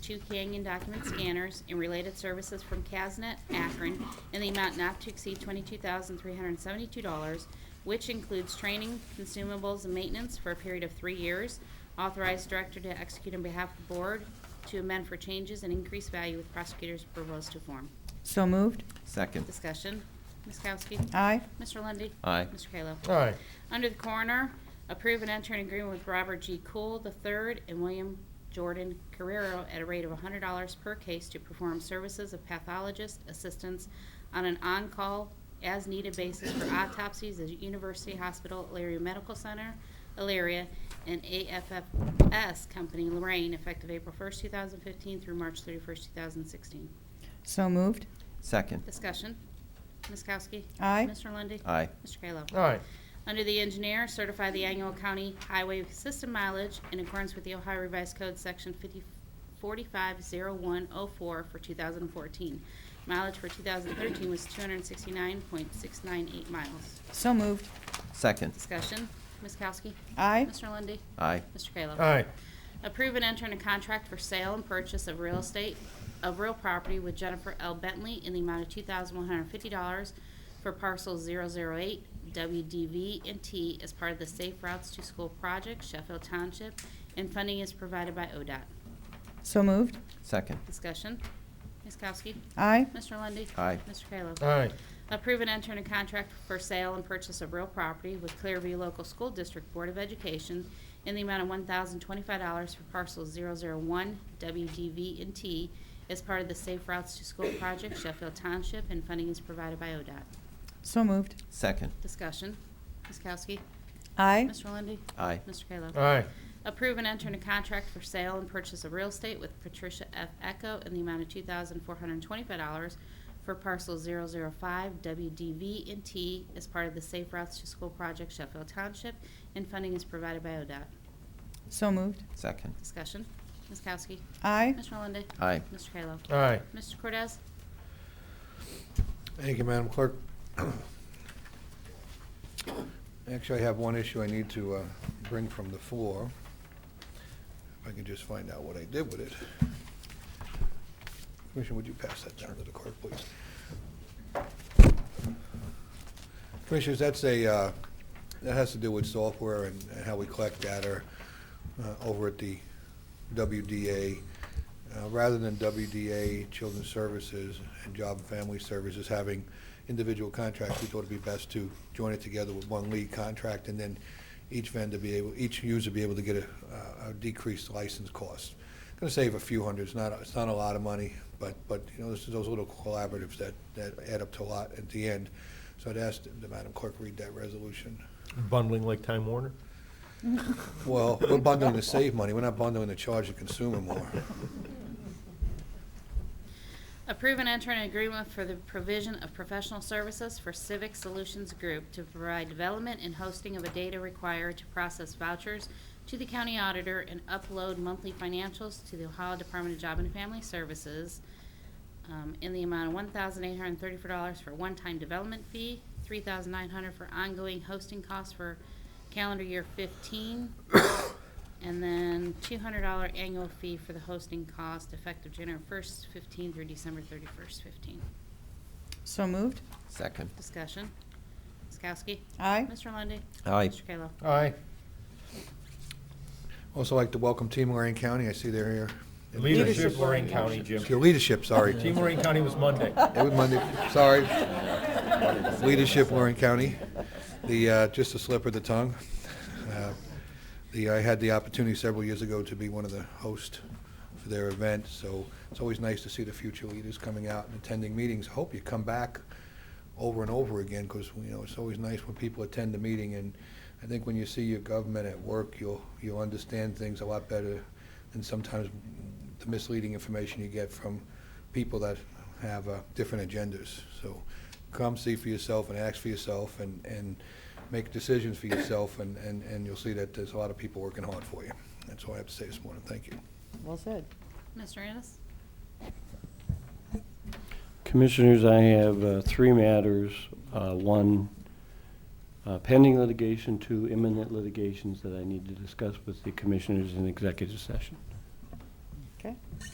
two Canyon document scanners and related services from Casnet, Akron, in the amount not to exceed $22,372, which includes training, consumables, and maintenance for a period of three years. Authorized director to execute on behalf of the board to amend for changes and increase value with prosecutor's proposed to form. So moved. Second. Discussion. Ms. Kowski? Aye. Mr. Lundy. Aye. Mr. Kayla? aye, Under the coroner, approve and enter an agreement with Robert G. Cool III and William Jordan Carrero at a rate of $100 per case to perform services of pathologist assistance on an on-call, as-needed basis for autopsies at University Hospital, Elyria Medical Center, Elyria, and AFFS Company, Lorraine, effective April 1st, 2015 through March 31st, 2016. So moved. Second. Discussion. Ms. Kowski? Aye. Mr. Lundy. Aye. Mr. Kayla? aye, Under the engineer, certify the annual county highway system mileage in accordance with the Ohio Revised Code, Section 50 450104 oh, for 2014. Mileage for 2013 was 269.698 miles. So moved. Second. Discussion, Ms. Kowski? Aye. Mr. Lundy, Aye. Mr. Kayla? aye, Approve and enter in a contract for sale and purchase of real estate, of real property with Jennifer L. Bentley in the amount of two thousand one hundred fifty dollars for parcel zero zero eight WDV and T as part of the Safe Routes to School Project, Sheffield Township, and funding is provided by ODOT. So moved. Second. Discussion. Ms. Kowski? Aye. Mr. Lundy. Aye. Mr. Kayla? aye, Approve and enter in a contract for sale and purchase of real property with Clearview Local School District Board of Education in the amount of $1,025 for parcel 001 WDV and T as part of the Safe Routes to School Project Sheffield Township, and funding is provided by ODOT. So moved. Second. Discussion. Ms. Kowski? Aye. Mr. Lundey? Aye. Mr. Kayla? aye, Approve and enter in a contract for sale and purchase of real estate with Patricia F. Echo in the amount of two thousand four hundred and twenty-five dollars for parcel 005 WDV and T as part of the Safe Routes to School Project Sheffield Township, and funding is provided by ODOT. So moved. Second. Discussion. Ms. Kowski. Aye. Mr. Lundey. Aye. Mr. Kayla. aye. Mr. Cordez. Thank you, Madam Clerk. Actually, I have one issue I need to uh, bring from the floor. If I can just find out what I did with it. Commissioner, would you pass that down to the clerk, please? Commissioners, that's a, uh, that has to do with software and and how we collect data uh, over at the WDA. Uh, Rather than WDA, Children's Services, and Job and Family Services having individual contracts, we thought it'd be best to join it together with one lead contract, and then each vendor be able, each user be able to get a uh, a decreased license cost. Going to save a few hundreds, not, it's not a lot of money, but, but, you know, this is those little collaboratives that, that add up to a lot at the end. So I'd ask the Madam Clerk read that resolution. Bundling like Time Warner? Well, we're bundling to save money, we're not bundling to charge the consumer more. Approve and enter an agreement for the provision of professional services for Civic Solutions Group to provide development and hosting of a data required to process vouchers to the county auditor and upload monthly financials to the Ohio Department of Job and Family Services um, in the amount of $1,834 for one-time development fee, $3,900 for ongoing hosting costs for calendar year 15, and then $200 annual fee for the hosting cost effective January 1st, 15 through December 31st, 15. So moved. Second. Discussion. Ms. Kowski? Aye. Mr. Lundy. Aye. Mr. Kayla? Aye. Also like to welcome Team Lorraine County, I see they're here. Leadership Lorraine County, Jim. Your leadership, sorry. Team Lorraine County was Monday. It was Monday, sorry. Leadership, Lorraine County. The, uh, just a slip of the tongue. Uh, The, I had the opportunity several years ago to be one of the hosts for their event, so it's always nice to see the future leaders coming out and attending meetings. I hope you come back over and over again, because, you know, it's always nice when people attend a meeting, and I think when you see your government at work, you'll, you'll understand things a lot better than sometimes the misleading information you get from people that have uh, different agendas. So come see for yourself and ask for yourself and, and make decisions for yourself, and, and, and you'll see that there's a lot of people working hard for you. That's all I have to say this morning. Thank you. Well said. Mr. Ennis? Commissioners, I have uh, three matters. Uh, One, uh, pending litigation, two imminent litigations that I need to discuss with the commissioners in executive session. Okay.